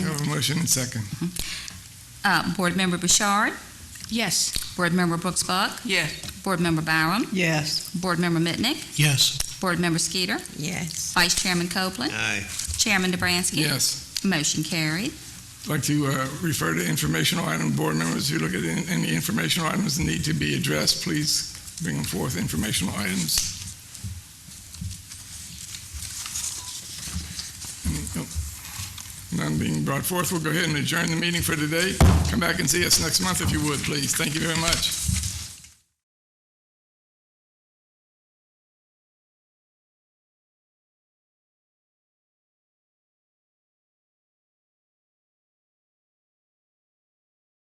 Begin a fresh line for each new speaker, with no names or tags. motion and second.
Uh, Board Member Bouchard,
Yes.
Board Member Brooks Buck,
Yes.
Board Member Byram,
Yes.
Board Member Mitnick,
Yes.
Board Member Skeeter,
Yes.
Vice Chairman Copeland,
Aye.
Chairman DeBranski.
Yes.
Motion carried.
I'd like to uh, refer to informational item, board members who look at any- any informational items that need to be addressed, please bring forth informational items. Any- oh, None being brought forth, we'll go ahead and adjourn the meeting for today. Come back and see us next month if you would, please. Thank you very much.